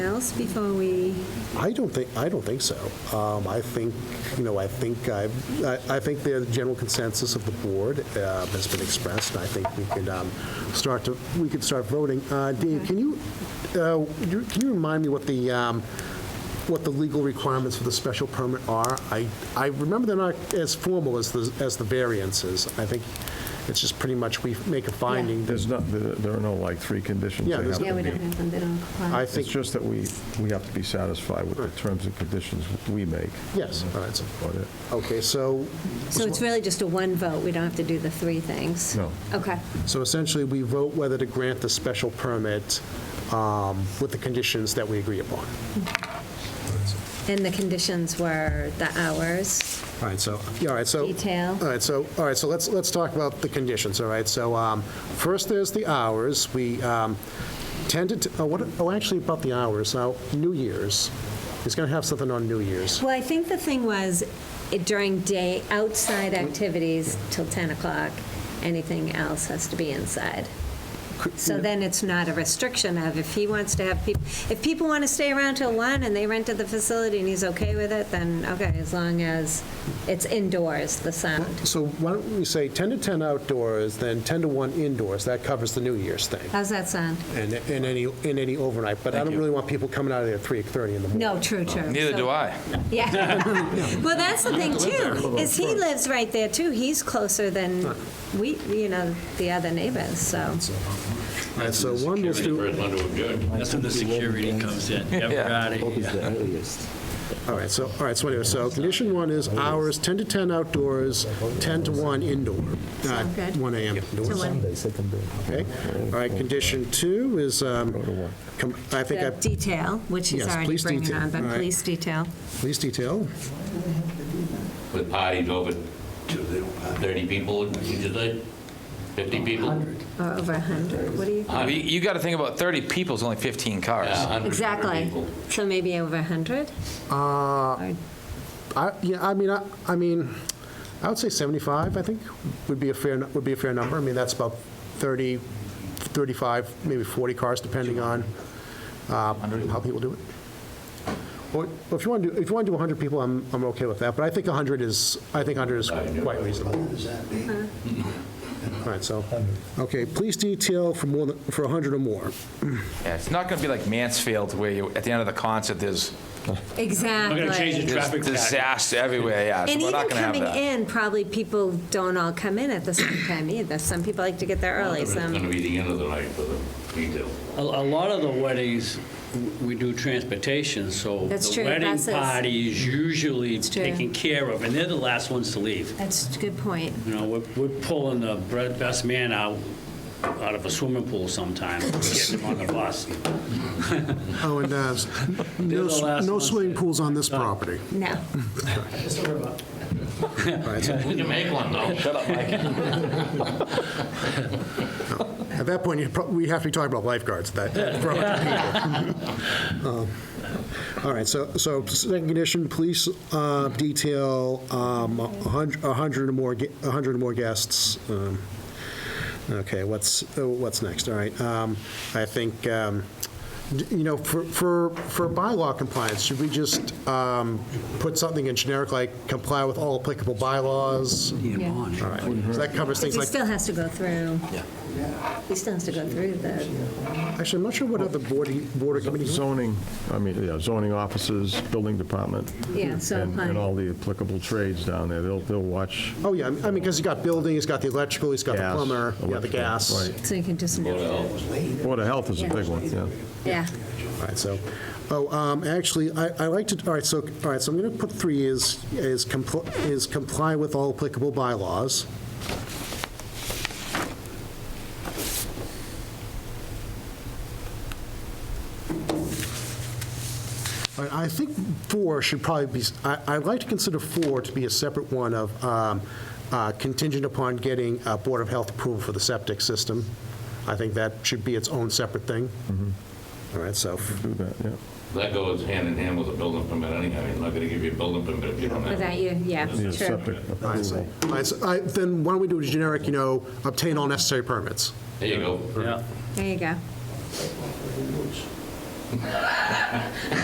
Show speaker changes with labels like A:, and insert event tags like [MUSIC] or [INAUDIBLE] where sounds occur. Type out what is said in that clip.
A: else before we,
B: I don't think, I don't think so. Um, I think, you know, I think, I, I I think the general consensus of the board uh, has been expressed, and I think we could um, start to, we could start voting. Uh, Dave, can you, uh, you- can you remind me what the, um, what the legal requirements for the special permit are? I, I remember they're not as formal as the, as the variances. I think it's just pretty much we make a finding. that-
C: There's not, there there are no like three conditions.
B: Yeah,
C: they
B: there's-
C: have
A: yeah,
C: to
A: we don't
C: meet.
A: have them, they don't apply.
B: I
C: It's
B: think,
C: just that we, we have to be satisfied with the terms and conditions we make.
B: yes, all right. so-
C: But it-
B: Okay, so
A: So it's really just a one vote, we don't have to do the three things?
C: No.
A: Okay,
B: So essentially, we vote whether to grant the special permit um, with the conditions that we agree upon.
A: and the conditions were the hours,
B: All right, so, yeah, all right, so.
A: Detail.
B: All right, so, all right, so let's, let's talk about the conditions, all right? So um, first, there's the hours. We um, tended to, oh, what, oh, actually, about the hours, now, New Year's. He's going to have something on New Year's.
A: Well, I think the thing was it- during day, outside activities till 10 o'clock, anything else has to be inside. So then it's not a restriction of if he wants to have, people. if people want to stay around till 1 and they rented the facility and he's okay with it, then okay, as long as it's indoors, the sound.
B: So why don't we say 10 to 10 outdoors, then 10 to 1 indoors? That covers the New Year's thing,
A: How's that sound?
B: and, and any, and any overnight. But I don't really want people coming out of there at 3:30 in the morning.
A: No, true, true.
D: Neither
A: So-
D: do I.
A: Yeah.
D: [LAUGHS]
A: [LAUGHS] Well, that's the thing too, is he lives right there too. He's closer than we, you know, the other neighbors, so.
B: All right, so one, let's do,
E: Security for London would do it. That's when the security comes in, every
D: Yeah.
E: Friday.
F: Is the earliest.
B: All right, so, all right, so anyway, so condition one is hours 10 to 10 outdoors, 10 to 1 indoor. uh,
A: Sound good?
B: 1 AM
A: So
B: indoors,
A: when-
F: Sunday, second day.
B: okay? All right, condition two is, um, com- I think,
A: The
B: I-
A: detail, which he's
B: Yes,
A: already
B: police
A: bringing
B: detail,
A: on, but
B: all right.
A: police detail.
B: police detail,
E: With parties over 30 people, would you say? 50 people?
A: Or uh, over 100, what do you?
D: You- You got to think about 30 people is only 15
E: Yeah,
D: cars.
E: 100
A: Exactly.
E: people.
A: So maybe over 100?
B: I, yeah, I mean, I, I mean, I would say 75, I think, would be a fair, nu- would be a fair number. I mean, that's about 30, 35, maybe 40 cars, depending on uh, how people do it. Or or if you want to, if you want to do 100 people, I'm, I'm okay with that, but I think 100 is, I think 100 is quite reasonable. All right, so, okay, police detail for more than, for 100 or more.
D: Yeah, It's not going to be like Mansfield where you, at the end of the concert, there's
A: Exactly.
E: gonna change it.
D: there's
E: Traffic pattern.
D: disaster everywhere, yeah. so
A: And
D: we're
A: even
D: not gonna have
A: coming
D: that.
A: in, probably people don't all come in at the same time either. Some people like to get there early,
E: It's going to
A: some,
E: be the end of the night for the detail.
G: A, a lot of the weddings, w- we do transportation, so.
A: That's true,
G: The wedding
A: buses.
G: party is usually
A: true.
G: taken care of, and they're the last ones to leave.
A: that's a good point.
G: You know, we're, we're pulling the bre- best man out, out of a swimming
A: [LAUGHS]
G: pool sometimes, getting him on the bus.
B: Oh, and uh,
G: They're
B: no
G: the
B: s-
G: last
B: no
G: ones
B: swimming
G: that-
B: pools on this property.
A: No.
B: All right, so
E: We can make one, though. Shut up, Mike.
B: At that point, you'd prob- we'd have to be talking about lifeguards at that. [LAUGHS] Um, All right, so, so second condition, police uh, detail, um, a 100 a hundred or more, ge- a 100 or more guests. um, Okay, what's, uh, what's next? All right, um, I think, um, d- you know, for, for for bylaw compliance, should we just um, put something in generic, like comply with all applicable bylaws?
G: Get him on.
B: All right, so that covers things
A: He
B: like
A: still has to go through. Yeah. He still has to go through the,
B: Actually, I'm not sure what other board, board or committee.
C: Zoning, I mean, yeah, zoning offices, building department,
B: Hmm.
A: yeah, so
C: and and
A: applying.
C: all the applicable trades down there, they'll, they'll watch
B: Oh, yeah, I mean, because he's got building, he's got the electrical, he's got the
C: gas.
B: plumber, yeah, the
C: electrical,
B: gas.
C: right.
A: So you can just,
C: Water health is a big one, yeah.
A: yeah.
B: All right, so, oh, um, actually, I, I like to, all right, so, all right, so I'm going to put three is, is comply, is comply with all applicable bylaws. I I think four should probably be, I- I'd like to consider four to be a separate one of um, uh, contingent upon getting uh, Board of Health approval for the septic system. I think that should be its own separate thing. All right, so,
C: Do that, yeah.
E: That goes hand in hand with a building permit anyhow. You're not going to give you a building permit if you don't have
A: Without
E: it.
A: you, yeah,
C: Yeah,
A: true.
C: septic
B: all right, so- all right, so, I- then why don't we do a generic, you know, obtain all necessary permits?
E: There you go.
G: Yeah.
A: There you go.